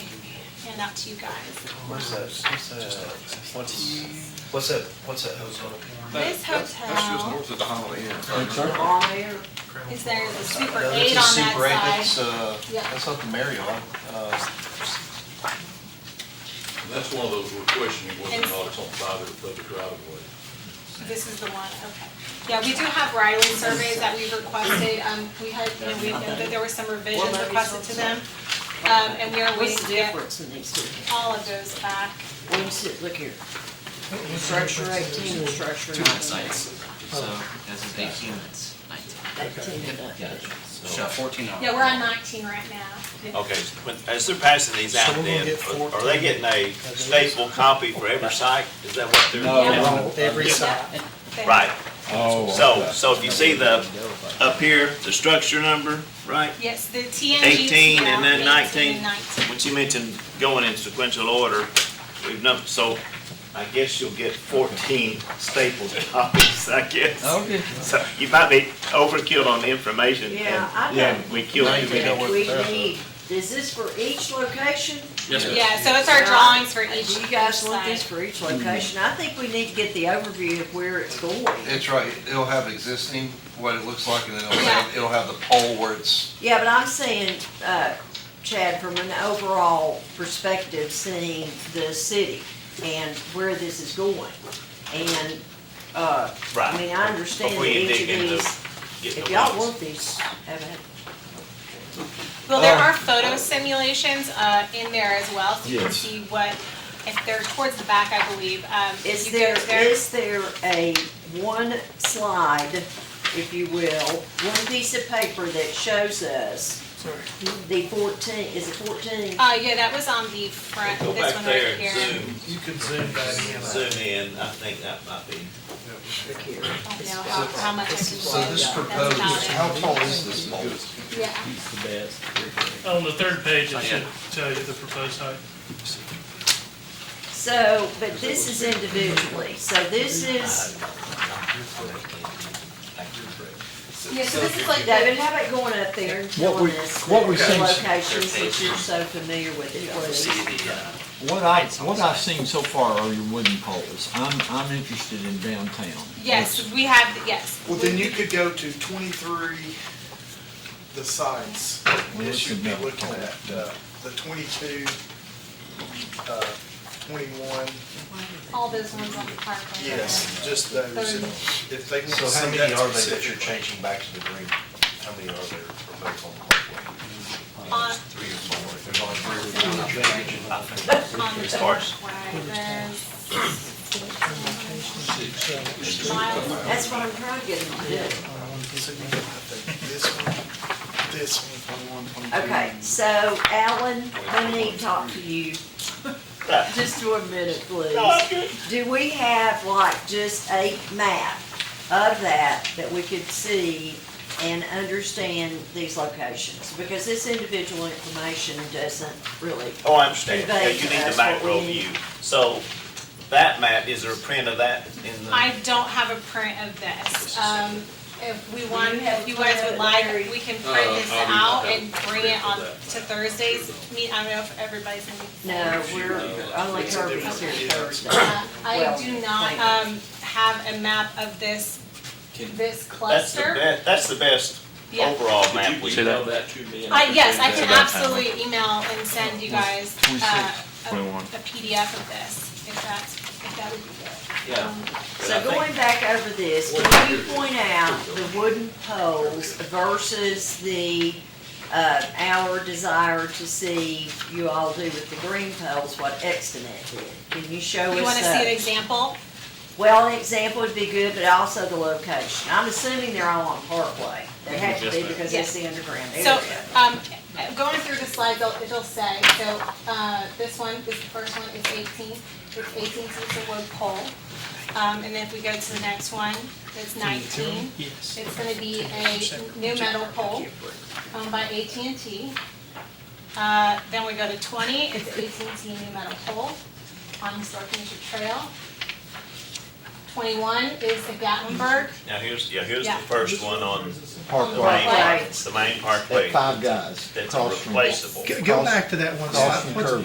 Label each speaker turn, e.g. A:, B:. A: sent out to you guys.
B: Where's that, what's that, what's, what's that, what's that hotel?
A: This
C: That's- That's just
A: hotel
C: north of the Holiday Inn.
A: is there, the super
B: Uh,
A: eight on that
B: That's a
A: side.
B: Super Eight, that's, uh,
A: Yeah.
B: that's not the Marriott, uh,
D: That's one of those we're questioning whether
A: And-
D: or not it's on private or public right of way.
A: This is the one, okay. Yeah, we do have right-of-way surveys that we've requested, um, we had, you know, we know that there were some revisions requested to them. Um, and we are waiting
E: What's
A: to
E: the
A: get
E: difference in these two?
A: all of those back.
E: Wait a sec, look here. Structure eighteen and structure
F: two
E: nineteen.
F: sites, so this is eight units, nineteen.
E: Eighteen and up.
F: Yeah, so fourteen on.
A: Yeah, we're on nineteen right now.
G: Okay, when- as they're passing these out
H: So we're gonna
G: then,
H: get
G: are- are
H: 14.
G: they getting a staple copy for every site? Is that what they're?
F: No.
H: Every side.
A: They-
G: Right,
C: Oh.
G: so, so if you see the, up here, the structure number, right?
A: Yes, the TNG's.
G: 18 and
A: down,
G: then
A: 18
G: 19.
A: and Nineteen.
G: What you mentioned going in sequential order, we've num, so I guess you'll get fourteen stapled copies, I guess.
F: Okay.
G: So you might be overkill on the information
E: Yeah, I
G: and, and we killed
B: Now
G: you.
B: you know what
E: We
B: that's-
E: need, is this for each location?
F: Yes, sir.
A: Yeah, so it's our drawings for
E: Do
A: each,
E: you
A: each
E: guys want this
A: site.
E: for each location? I think we need to get the overview of where it's going.
I: It's right, it'll have existing, what it looks like, and then it'll
A: Yeah.
I: have, it'll have the pole where it's,
E: Yeah, but I'm saying, uh, Chad, from an overall perspective, seeing the city and where this is going. And, uh, I mean, I understand
G: Before
E: that
G: you
E: each of
G: dig into-
E: these,
G: Get
E: if
G: the
E: y'all
G: ones.
E: want these, have it.
A: Well, there are photo simulations, uh, in there as well, so you can
C: Yes.
A: see what, if they're towards the back, I believe, um. if
E: Is
A: you go
E: there,
A: to their-
E: is there a one slide, if you will, one piece of paper that shows us the fourteen, is it fourteen?
A: Uh, yeah, that was on the front,
G: Go
A: this
G: back
A: one
G: there
A: right
G: and
A: here.
G: zoom,
H: You could zoom back in.
G: zoom in, I think that might be.
E: Look here.
A: I don't know how, how much I can
I: so
A: zoom.
I: this
A: That's
I: proposed,
A: about it.
I: how tall is this pole?
A: Yeah,
H: On the third page, it should
F: Yeah.
H: tell you the proposed height.
E: So, but this is individually, so this is,
A: yeah, so this is like
E: David,
A: the,
E: how about going up there and
J: What
E: telling
J: we-
E: us the
J: what we seen-
E: locations that you're so familiar with, please?
F: See the, uh,
J: What I, what I've seen so far are your wooden poles. I'm, I'm interested in downtown.
A: yes, we have, the- yes.
K: Well, then you could go to twenty-three, the sides,
J: Let's
K: that you'd be
J: admit it.
K: looking at, uh, the twenty-two, uh, twenty-one,
A: All those ones on the park. right there.
K: yes, just those.
A: Thirty.
K: If they want to
B: So how
K: see
B: many
K: that
B: are they that you're
K: specific.
B: changing back to the green? How many are there for both on the parkway?
A: On,
B: Three or four, there's only three or four.
A: on the parkway, there's. Miles.
E: That's what I'm trying to get them to do.
K: So you can update this one, this one, twenty-one, twenty-two.
E: Okay, so Alan, let me talk to you, just for a minute, please. Do we have like just a map of that, that we could see and understand these locations? Because this individual information doesn't really,
G: Oh, I understand,
E: Convey
G: yeah, you
E: to
G: need
E: us
G: the
E: what
G: macro
E: we need.
G: view. So that map, is there a print of that in the?
A: I don't have a print of this. Um, if we want, if you guys would like, we can print
D: Uh,
A: this
D: I'll do-
A: out
D: I'll
A: and bring it
D: print
A: on
D: of
A: to
D: that.
A: Thursday's meet. I don't know if everybody's in.
E: no, we're, only Kirby's here Thursday.
A: Uh, I
E: Well,
A: do not,
E: thank
A: um, have a map of this,
F: Can-
A: this
G: That's the
A: cluster.
G: best, that's the best
A: Yeah.
G: overall map
D: Could
G: we
D: you
F: See that?
D: email that to me? and
A: I,
D: could
A: yes,
D: bring
A: I can
D: that up?
A: absolutely email and send you guys, uh, a a PDF of this, if that's, if that would be good.
G: Yeah.
A: Um,
G: But I
E: So
G: think-
E: going back over this, can you point out the wooden poles versus the, uh, our desire to see you all do with the green poles, what Extonet did? Can you show us
A: You wanna see an
E: those?
A: example?
E: Well, an example would be good, but also the location. I'm assuming they're all on Parkway. They have to be because it's the underground
A: So,
E: area.
A: um, going through the slides, it'll, it'll say, so, uh, this one, this first one is eighteen, it's eighteen, so it's a wood pole. Um, and then if we go to the next one, it's nineteen.
H: Yes.
A: It's gonna be a new metal pole owned by AT&T. Uh, Then we go to 20, it's AT&T new metal pole on Historic Nature Trail. 21 is the Gatlinburg.
G: Now, here's, yeah, here's the
A: Yeah.
G: first one on the
A: Parkway.
G: main,
E: Parkway.
G: it's the main parkway
J: Five guys
G: that's
J: across from,
G: replaceable.
H: Go back to that one
J: across from Kirby.